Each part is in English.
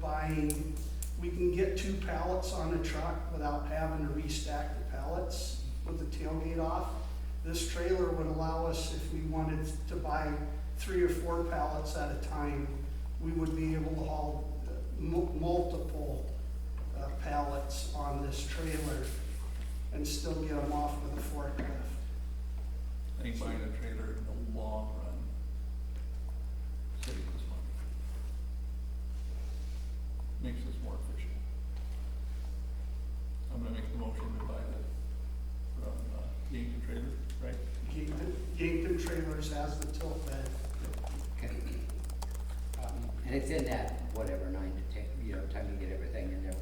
buying, we can get two pallets on a truck without having to restack the pallets with the tailgate off. This trailer would allow us, if we wanted to buy three or four pallets at a time, we would be able to haul uh, mu- multiple uh, pallets on this trailer and still get them off with a forklift. I think buying a trailer in the long run saves us money. Makes us more efficient. I'm gonna make the motion to buy the, from, uh, Yankton Trailer, right? Yankton Yankton Trailers has the tilt bed. Okay. Um, And it's in that, whatever, nine to ten, you know, time you get everything in there,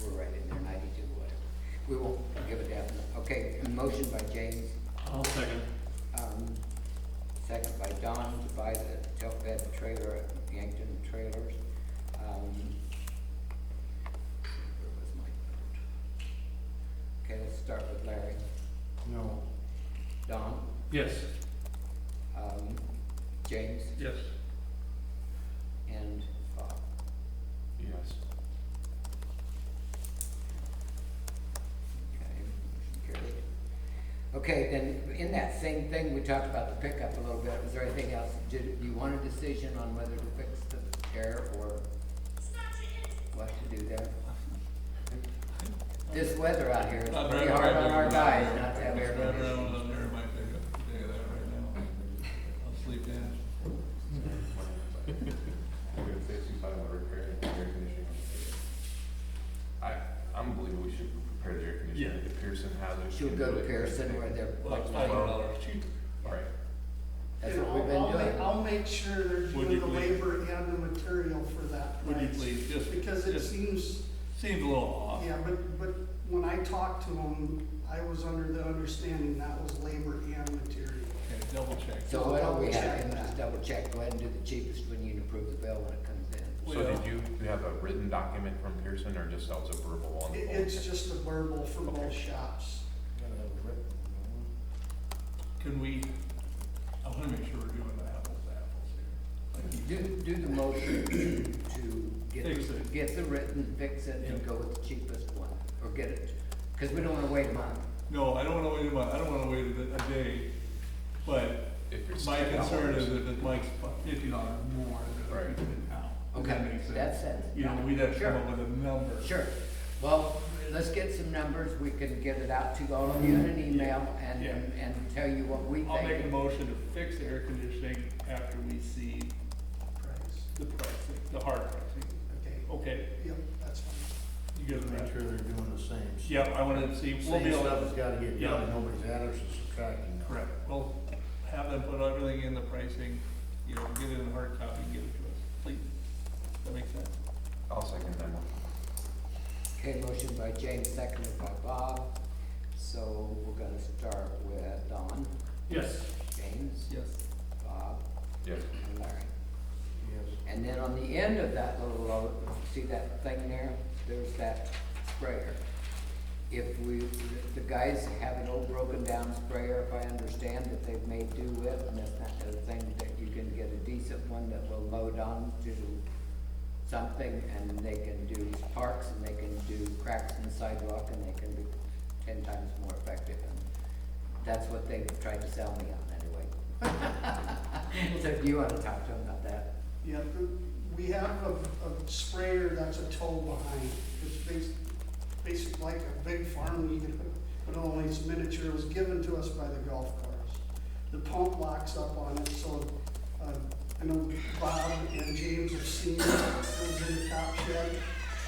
we're we're right in there, ninety-two, whatever. We won't give a damn. Okay, a motion by James, I'll second. um, second by Don to buy the tilt bed trailer at Yankton Trailers. Um, Where was my note? Okay, let's start with Larry. No. Don, Yes. um, James, Yes. and Bob. Yes. Okay, motion carried. Okay, then, in that same thing, we talked about the pickup a little bit, was there anything else? Did, you want a decision on whether to fix the air or what to do there? This weather out here is Not pretty around hard on there. our guys not to have air Not around conditioning. on there, might pick up the day of that right now. I'll sleep in. I'm gonna say she's talking about repairing the air conditioning. I, I'm believing we should repair the air conditioning, Yeah. if Pearson has it. Should we go to Pearson where they're Well, like, it's five dollars cheaper. Right, that's And what I'll- we've been I'll ma- doing? I'll make sure they're Would doing you the please? labor and the material for that Would you price. please, just, Because it just seems, seems a little off. yeah, but, but when I talked to them, I was under the understanding that was labor and material. Okay, double check. So why don't we have him Double check. just double check, go ahead and do the cheapest when you approve the bill when it comes in? so Well- did you, you have a written document from Pearson, or just that was a verbal on It, the phone? it's just a verbal for both shops. Can we, I wanna make sure we're doing the apples to apples here. Like, Do, do the motion to Fix it. get, get the written, fix it, and Yeah. go with the cheapest one, or get it, cause we don't wanna wait a month. No, I don't wanna wait a month, I don't wanna wait a a day, but If it's my $10. concern is if it Mike's fifty dollars more than Right. it is now. Does that Okay, make sense? that's it. You know, we'd have to come Sure. up with a number. Sure, well, let's get some numbers, we can get it out to all of you in an email, and, Yeah. and and tell you what we I'll make a think. motion to fix the air conditioning after we see Price. the pricing, the hard pricing. Okay, Okay, yep, that's fine. you get Make that? sure they're doing the same. s- Yeah, I wanna see, we'll be Same able stuff to. has gotta get Yeah. done, and nobody's adding or subtracting. now. Correct. We'll have them put everything in the pricing, you know, get it in hard copy, and give it to us, please. That makes sense? I'll second that one. Okay, motion by James, seconded by Bob, so we're gonna start with Don, Yes. James, Yes. Bob, Yes, and Larry. Yes. And then on the end of that little road, see that thing there? There's that sprayer. If we, the guys have an old broken down sprayer, if I understand, that they've made do with, and that's not the thing that you can get a decent one that will load on to something, and they can do parks, and they can do cracks in the sidewalk, and they can be ten times more effective. And That's what they tried to sell me on anyway. So if you wanna talk to them about that? Yeah, the- we have a, a sprayer that's a toe behind. It's bas- basic like a big farm weed, but only it's miniature. It was given to us by the golf course. The pump locks up on it, so, uh, I know Bob and James have seen it, it was in the top shed.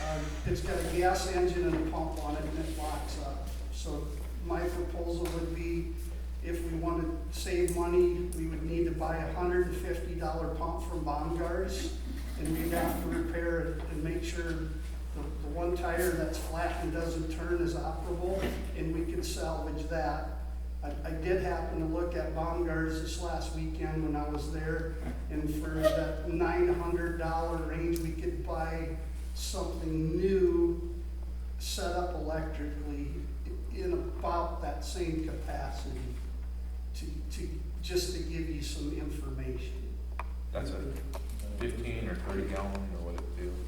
Uh, it's got a gas engine and a pump on it and it locks up. So my proposal would be, if we want to save money, we would need to buy a hundred and fifty dollar pump from Baumgart's. And we'd have to repair it and make sure the, the one tire that's flat and doesn't turn is operable, and we could salvage that. I, I did happen to look at Baumgart's this last weekend when I was there, and for that nine hundred dollar range, we could buy something new, set up electrically i- in about that same capacity to, to, just to give you some information. that's a fifteen or thirty gallon or